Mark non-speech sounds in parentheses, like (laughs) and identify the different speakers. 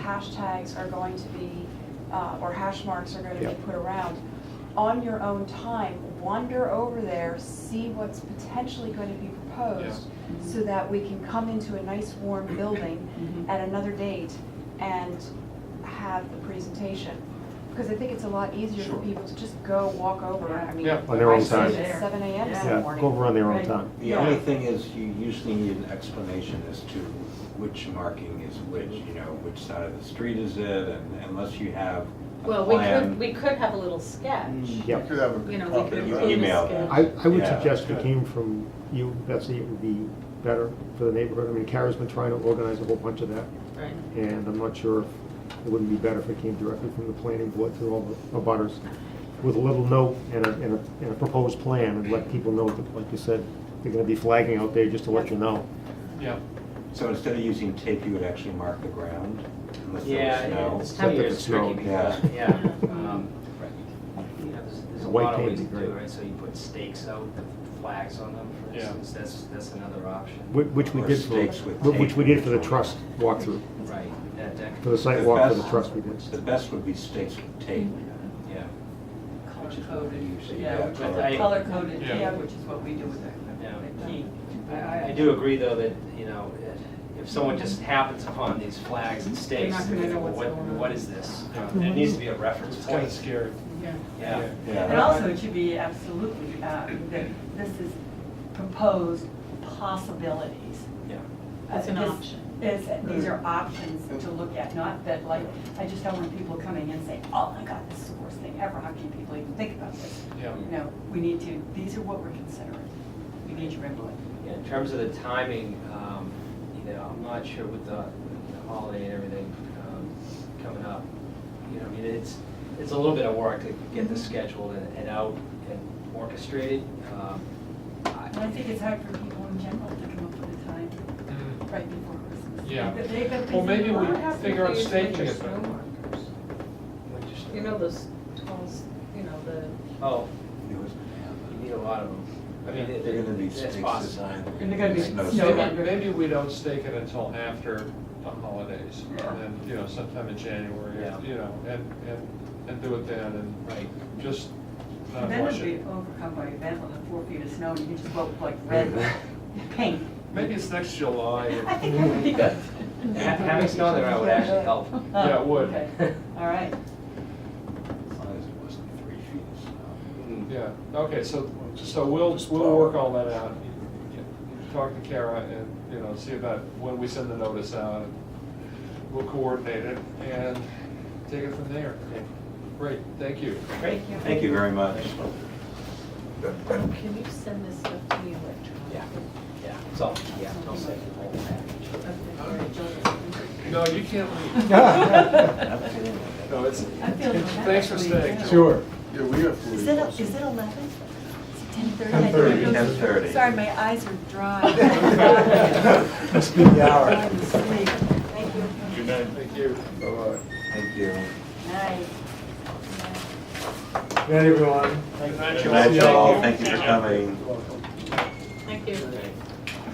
Speaker 1: hashtags are going to be, uh, or hash marks are going to be
Speaker 2: Yep.
Speaker 1: put around. On your own time, wander over there, see what's potentially going to be proposed, so that we can come into a nice warm building
Speaker 3: Mm-hmm.
Speaker 1: at another date and have the presentation. Because I think it's a lot easier for
Speaker 4: Sure.
Speaker 1: people to just go walk over, I mean.
Speaker 4: Yeah.
Speaker 2: On their own
Speaker 1: I started
Speaker 2: time.
Speaker 1: at seven AM
Speaker 3: Yeah.
Speaker 1: some
Speaker 2: Yeah, go
Speaker 1: morning.
Speaker 2: over on their own
Speaker 3: Right.
Speaker 2: time.
Speaker 5: The only thing is you usually need an explanation as to which marking is which, you know, which side of the street is it, and unless you have a
Speaker 6: Well, we could,
Speaker 5: plan.
Speaker 6: we could have a little
Speaker 5: Mm.
Speaker 6: sketch.
Speaker 2: Yep.
Speaker 4: could have a
Speaker 6: You know, we
Speaker 4: copy
Speaker 6: could
Speaker 4: of
Speaker 5: You
Speaker 4: that.
Speaker 6: do the
Speaker 5: email
Speaker 6: sketch.
Speaker 5: that.
Speaker 2: I, I would
Speaker 5: Yeah.
Speaker 2: suggest it came from you, Betsy, it would be better for the neighborhood. I mean, Kara's been trying to organize a whole bunch of that,
Speaker 6: Right.
Speaker 2: and I'm not sure if it wouldn't be better if it came directly from the planning board through all the abutters with a little note and a, and a, and a proposed plan, and let people know that, like you said, they're gonna be flagging out there just to let you know.
Speaker 4: Yeah,
Speaker 5: So instead of using tape, you would actually mark the ground unless
Speaker 7: Yeah,
Speaker 5: there was
Speaker 7: it's
Speaker 5: snow.
Speaker 7: ten
Speaker 2: Except if
Speaker 7: years
Speaker 2: it's snow,
Speaker 7: tricky because, yeah.
Speaker 2: (laughs)
Speaker 7: um, You know, there's, there's a
Speaker 2: White
Speaker 7: lot of
Speaker 2: paint
Speaker 7: ways to
Speaker 2: would be
Speaker 7: do it,
Speaker 2: great.
Speaker 7: right? So you put stakes out, the flags on them, for
Speaker 4: Yeah.
Speaker 7: instance, that's, that's another option.
Speaker 2: Whi- Which we
Speaker 5: Or
Speaker 2: did for,
Speaker 5: stakes with
Speaker 2: whi- which we
Speaker 5: tape.
Speaker 2: did for the trust walkthrough,
Speaker 7: Right, that, that,
Speaker 2: for the
Speaker 7: could-
Speaker 2: site
Speaker 5: The
Speaker 2: walk for the
Speaker 5: best-
Speaker 2: trust we did.
Speaker 5: The best would be stakes with tape.
Speaker 7: yeah,
Speaker 3: Color
Speaker 5: Which is what they
Speaker 3: coded,
Speaker 5: usually
Speaker 3: yeah,
Speaker 5: have,
Speaker 3: which
Speaker 7: color
Speaker 3: is
Speaker 7: coded.
Speaker 3: color coded,
Speaker 4: Yeah.
Speaker 3: yeah, which is what we do with that. uh,
Speaker 7: yeah.
Speaker 3: like that.
Speaker 7: He- I- I, I do agree though that, you know, if someone just happens upon these flags and stakes,
Speaker 3: not
Speaker 7: they're
Speaker 3: gonna
Speaker 7: gonna go,
Speaker 3: know what's
Speaker 7: what,
Speaker 3: going on."
Speaker 7: what is this? There needs to be a reference
Speaker 4: it's kind of
Speaker 7: point,
Speaker 4: scary.
Speaker 3: Yeah.
Speaker 7: yeah.
Speaker 5: Yeah.
Speaker 3: And also, it should be absolutely, uh, that this is proposed possibilities.
Speaker 7: Yeah.
Speaker 6: It's an
Speaker 3: Uh, this
Speaker 6: option.
Speaker 3: is- these are options to look at, not that like, I just don't want people coming in saying, oh my God, this is the worst thing ever, how can people even think about this?
Speaker 4: Yeah.
Speaker 3: No, we need to, these are what we're considering, we need your input.
Speaker 7: Yeah, in terms of the timing, um, you know, I'm not sure with the with the holiday and everything um, coming up. You know, I mean, it's, it's a little bit of work to get this scheduled and and out and orchestrated. Um,
Speaker 3: And I think it's hard for people in general to come up with a time
Speaker 4: Mm.
Speaker 3: right before Christmas.
Speaker 4: Yeah.
Speaker 3: But they've got
Speaker 4: Well,
Speaker 3: these
Speaker 4: maybe we
Speaker 3: plans.
Speaker 4: figure out staging it then.
Speaker 6: You
Speaker 7: I just-
Speaker 6: know, those tall, s- you know, the,
Speaker 7: Oh,
Speaker 5: There was-
Speaker 7: you need a lot of them. I mean, it-
Speaker 5: They're gonna be
Speaker 7: it- it's
Speaker 5: stakes
Speaker 7: possible.
Speaker 5: (laughs) designed.
Speaker 3: And they're gonna be
Speaker 5: snow
Speaker 3: snow
Speaker 5: stakes.
Speaker 3: under.
Speaker 4: Maybe maybe we don't stake it until after the holidays, and then, you know, sometime in January,
Speaker 7: Yeah.
Speaker 4: or, you know, and, and, and do it then, and
Speaker 7: Right.
Speaker 4: just not
Speaker 3: Then
Speaker 4: rush
Speaker 3: it'll be
Speaker 4: it.
Speaker 3: overcome by event with the four feet of snow, and you can just go up like
Speaker 4: (laughs)
Speaker 3: red paint.
Speaker 4: Maybe it's next July,
Speaker 3: (laughs) I
Speaker 4: and-
Speaker 3: think that would be good. (laughs)
Speaker 7: Ha- Having snow there would actually help.
Speaker 4: Yeah, it would.
Speaker 3: Okay. All right.
Speaker 5: As long as it wasn't three feet of snow.
Speaker 4: yeah, okay, so, so we'll, we'll work all that out. You- you Talk to Kara and, you know, see about when we send the notice out, and we'll coordinate it, and take it from there. Great, thank you.
Speaker 7: Great,
Speaker 5: Thank you very much.
Speaker 6: can you send this stuff to me electronically?
Speaker 7: Yeah, yeah, it's all, yeah, I'll send you the whole package.
Speaker 4: No, you can't leave.
Speaker 2: (laughs)
Speaker 4: No, it's,
Speaker 3: I feel bad,
Speaker 4: (laughs) thanks for staying. Joel.
Speaker 8: Sure. Yeah, we have
Speaker 3: Is it, is it eleven? Is it ten thirty?
Speaker 8: 10:30.
Speaker 3: Sorry, my (laughs) eyes are
Speaker 8: (laughs)
Speaker 3: dry.
Speaker 1: (laughs)
Speaker 3: (laughs)
Speaker 8: Must be the hour.
Speaker 3: I'm asleep. Thank you.
Speaker 8: Good night.
Speaker 4: Thank you.
Speaker 8: Bye-bye.
Speaker 5: Thank you.
Speaker 3: Night.
Speaker 8: Good night, everyone.
Speaker 4: Good night,
Speaker 5: Good night,
Speaker 4: Joel.
Speaker 5: y'all. Thank you for coming.
Speaker 8: You're welcome.